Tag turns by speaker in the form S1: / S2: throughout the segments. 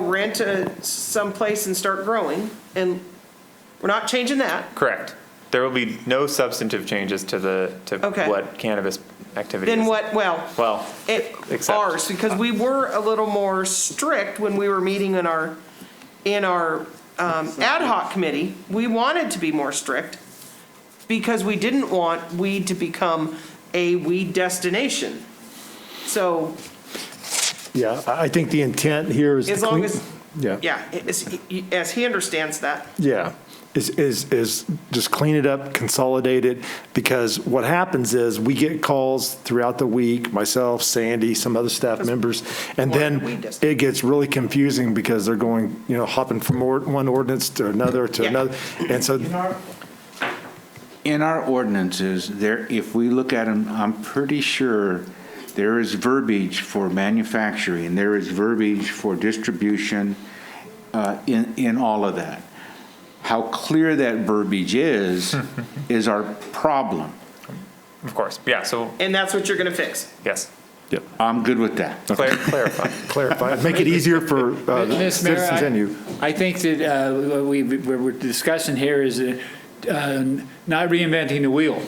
S1: rent to someplace and start growing, and we're not changing that.
S2: Correct. There will be no substantive changes to the, to
S1: Okay.
S2: what cannabis activity is.
S1: Then what, well,
S2: Well,
S1: it,
S2: Except-
S1: ours, because we were a little more strict when we were meeting in our, in our um, ad hoc committee. We wanted to be more strict because we didn't want weed to become a weed destination. So
S3: Yeah, I I think the intent here is. to
S1: As long
S3: clean-
S1: as-
S3: Yeah,
S1: Yeah, as, as he understands that.
S3: yeah, is, is, is just clean it up, consolidate it, because what happens is we get calls throughout the week, myself, Sandy, some other staff members, and
S1: Why we
S3: then
S1: just-
S3: it gets really confusing because they're going, you know, hopping from or- one ordinance to another to
S1: Yeah.
S3: another, and so,
S4: In our ordinances, there, if we look at them, I'm pretty sure there is verbiage for manufacturing, there is verbiage for distribution uh, in, in all of that. How clear that verbiage is, is our problem.
S2: of course, yeah, so,
S1: And that's what you're gonna fix.
S2: yes,
S4: I'm good with that.
S2: Clar- clarify.
S3: clarify, make it easier for uh,
S5: Ms. Mayor,
S3: citizens
S5: I-
S3: and you.
S5: I think that uh, what we, what we're discussing here is uh, not reinventing the wheel.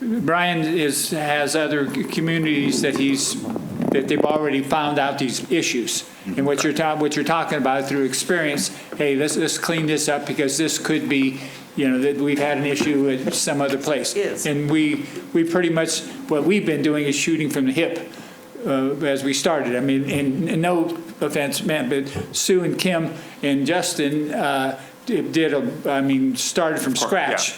S5: Brian is, has other communities that he's, that they've already found out these issues. And what you're talking, what you're talking about through experience, hey, let's, let's clean this up because this could be, you know, that we've had an issue at some other place.
S1: Yes.
S5: And we, we pretty much, what we've been doing is shooting from the hip uh, as we started. I mean, and and no offense meant, but Sue and Kim and Justin uh, did, did a- I mean, started from scratch.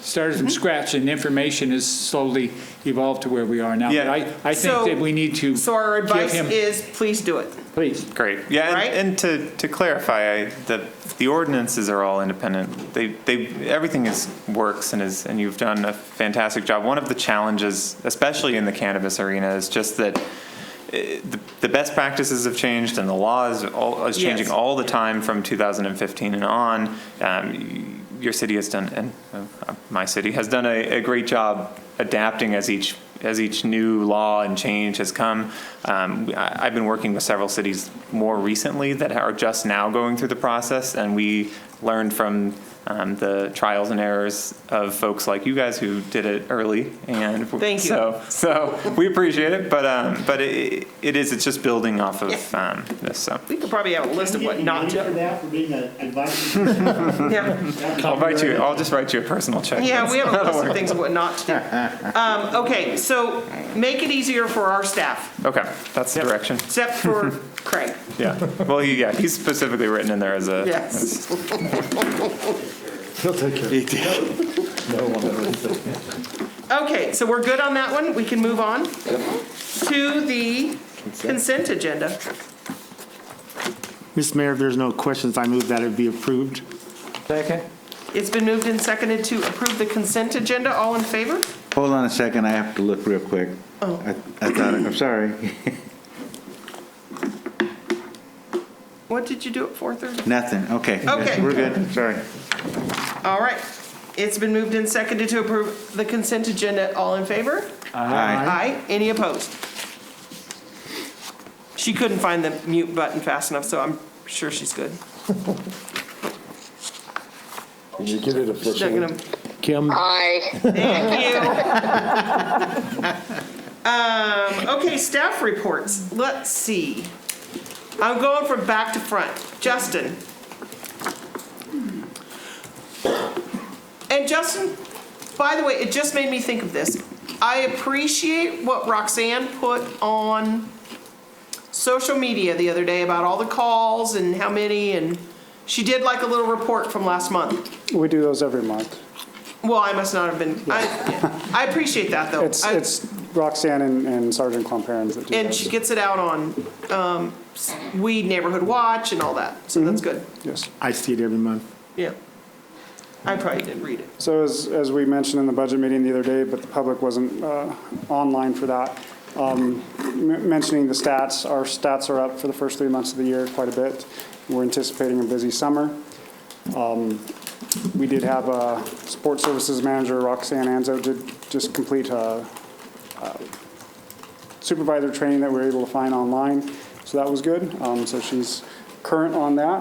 S5: Started
S1: Mm-hmm.
S5: from scratch, and information has slowly evolved to where we are now. But
S2: Yeah.
S5: I, I think
S1: So-
S5: that we need to
S1: So our
S5: give
S1: advice
S5: him,
S1: is, please do it.
S5: please.
S2: Great, yeah,
S1: Right?
S2: and, and to, to clarify, I, the, the ordinances are all independent. They, they, everything is, works and is, and you've done a fantastic job. One of the challenges, especially in the cannabis arena, is just that eh, the, the best practices have changed and the law is, all, is changing
S1: Yes.
S2: all the time from 2015 and on. Um, your city has done, and uh, my city has done a, a great job adapting as each as each new law and change has come. Um, I, I've been working with several cities more recently that are just now going through the process, and we learned from um, the trials and errors of folks like you guys who did it early. And
S1: Thank you.
S2: So, so we appreciate it, but um, but it, it is it's just building off of um, this. So
S1: We could probably have a list of what not
S6: Can
S1: to.
S6: you get paid for that for being an advice?
S1: Yeah,
S2: I'll write you. I'll just write you a personal check.
S1: yeah, we have a list of things of what not to do. Um, okay, so make it easier for our staff,
S2: Okay, that's the direction.
S1: except for Craig.
S2: Yeah. Well, he, yeah, he's specifically written in there as a.
S1: Yes.
S3: He'll take care.
S1: Okay, so we're good on that one. We can move on to the consent agenda.
S7: Mr. Mayor, if there's no questions, I move that it be approved.
S1: It's been moved and seconded to approve the consent agenda. All in favor?
S4: Hold on a second, I have to look real quick. I I thought, I'm sorry,
S1: What did you do at 4:30?
S4: nothing, okay.
S1: Okay.
S4: We're good, sorry.
S1: All right. It's been moved and seconded to approve the consent agenda. All in favor?
S4: Aye.
S1: Aye. Any opposed? She couldn't find the mute button fast enough, so I'm sure she's good.
S3: You get it
S1: She's not gonna,
S3: Kim?
S8: Aye.
S1: thank you. Um, okay, staff reports. Let's see. I'm going from back to front. Justin. And Justin, by the way, it just made me think of this. I appreciate what Roxanne put on social media the other day about all the calls and how many, and she did like a little report from last month.
S9: We do those every month.
S1: Well, I must not have been, I, I appreciate that, though.
S9: It's,
S1: I-
S9: it's Roxanne and- and Sergeant Clomperens that do
S1: And she
S9: those.
S1: gets it out on um, s- Weed Neighborhood Watch and all that, so that's
S9: Mm-hmm.
S1: good,
S9: Yes.
S7: I see it every month.
S1: yeah. I probably didn't read it.
S9: So as, as we mentioned in the budget meeting the other day, but the public wasn't uh, online for that, um, m- mentioning the stats, our stats are up for the first three months of the year quite a bit. We're anticipating a busy summer. Um, We did have a sports services manager, Roxanne Anzo, did just complete a uh, supervisor training that we were able to find online, so that was good. Um, So she's current on that.